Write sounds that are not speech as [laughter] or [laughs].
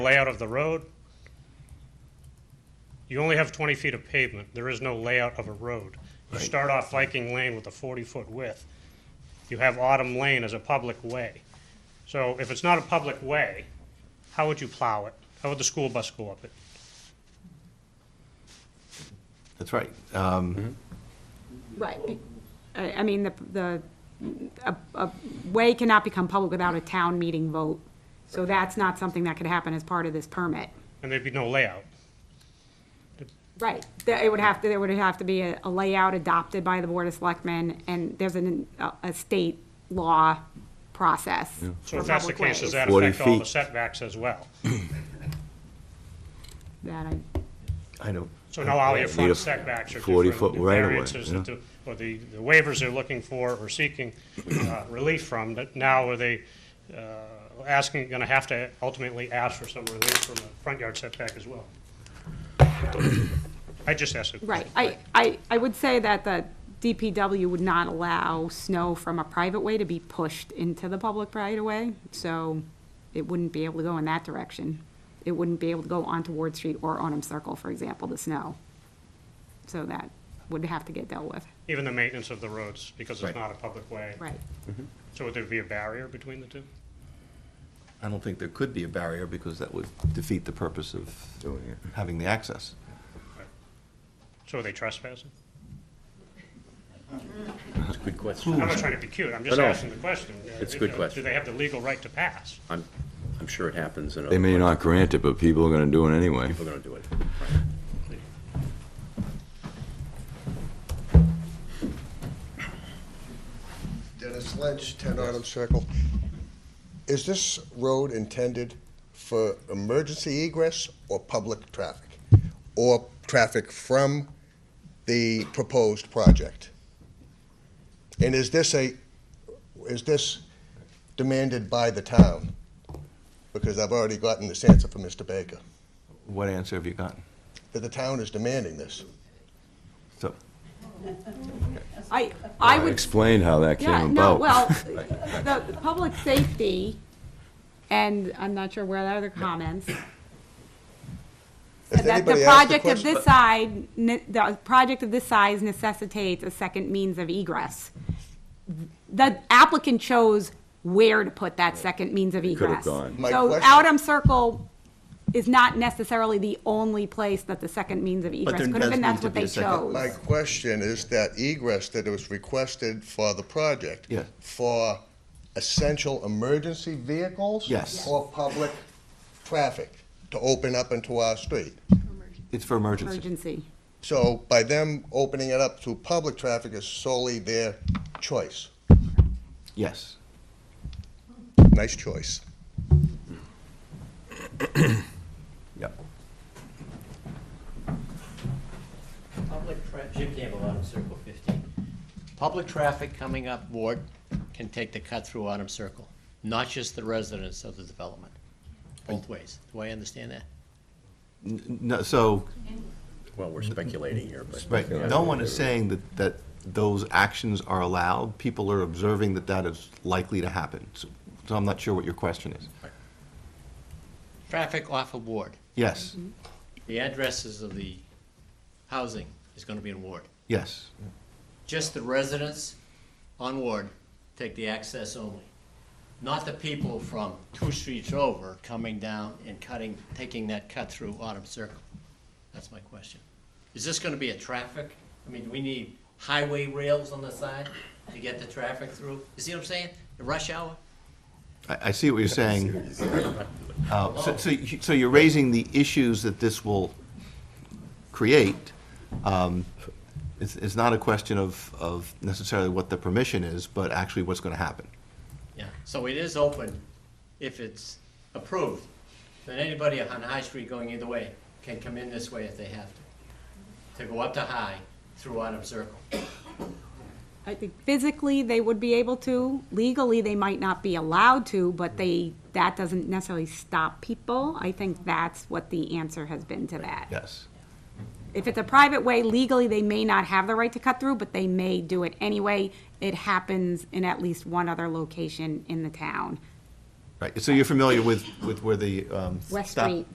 layout of the road. You only have 20 feet of pavement. There is no layout of a road. You start off Viking Lane with a 40-foot width. You have Autumn Lane as a public way. So if it's not a public way, how would you plow it? How would the school bus go up it? That's right. Uh, Um, Right. be- I, I mean, the, the, a, a way cannot become public without a town meeting vote. So that's not something that could happen as part of this permit. And there'd be no layout. Right. There, it would have to, there would have to be a a layout adopted by the Board of Selectmen, and there's an, a, a state law process. So for if that's the public case, does ways. that 40 affect all the feet. setbacks as well? That I, I know. So now all your Need front a setbacks are 40-foot different, the right of way, variances that yeah. the, or the the waivers they're looking for or seeking uh, relief from, but now are they uh, asking, going to have to ultimately ask for some relief from the front yard setback as well? I just asked a right. question. I, I, I would say that the DPW would not allow snow from a private way to be pushed into the public right of way, so it wouldn't be able to go in that direction. It wouldn't be able to go onto Ward Street or Onum Circle, for example, the snow. So that would have to get dealt with. Even the maintenance of the roads, because it's Right. not a public way. Right. So would there be a barrier between the two? I don't think there could be a barrier because that would defeat the purpose of having the access. So are they trespassing? That's a good I'm question. not trying to be cute, I'm just No, no. asking the question. It's a good Do question. they have the legal right to pass? I'm, I'm sure it happens in other. They may not grant it, but people are gonna do it anyway. People are gonna do it. Dennis Lynch, 10 Autumn Circle. Is this road intended for emergency egress or public traffic? Or traffic from the proposed project? And is this a, is this demanded by the town? Because I've already gotten this answer from Mr. Baker, What answer have you gotten? that the town is demanding this. So, I, I I would explained how that Yeah, came no, about. [laughs] well, the, the public safety, and I'm not sure where the other comments. If That anybody the asked project of question- this side, ne- the project of this size necessitates a second means of egress. The applicant chose where to put that second means of could've egress. gone. My So question- Outham Circle is not necessarily the only place that the second means of egress there could does have been, need that's to what be a they second- chose. My question is that egress that was requested for the project. Yes. For essential emergency vehicles? Yes. Or public traffic to open up into our street? it's for emergency. Emergency, So by them opening it up to public traffic is solely their choice. Yes. Nice choice. Yep. Public tra, Jim Campbell, Autumn Circle fifteen. Public traffic coming up Ward can take the cut through Autumn Circle, not just the residents of the development, both ways. Do I understand that? N- No, so, Well, we're speculating here, but. right, no one is saying that, that those actions are allowed. People are observing that that is likely to happen. So so I'm not sure what your question is. Traffic off of Ward, Yes, the addresses of the housing is gonna be in Ward. yes, Just the residents on Ward take the access only, not the people from two streets over coming down and cutting, taking that cut through Autumn Circle. That's my question. Is this gonna be a traffic? I mean, do we need highway rails on the side to get the traffic through? You see what I'm saying? The rush hour? I, I see what you're saying. Uh, So, so you- so you're raising the issues that this will create. Um, It's, it's not a question of, of necessarily what the permission is, but actually what's going to happen. Yeah, so it is open if it's approved. Then anybody on High Street going either way can come in this way if they have to, to go up to High through Autumn Circle. I think physically they would be able to, legally they might not be allowed to, but they, that doesn't necessarily stop people. I think that's what the answer has been to that. Yes. If it's a private way, legally they may not have the right to cut through, but they may do it anyway. It happens in at least one other location in the town. Right, so you're familiar with, with where the um, West stop- Street.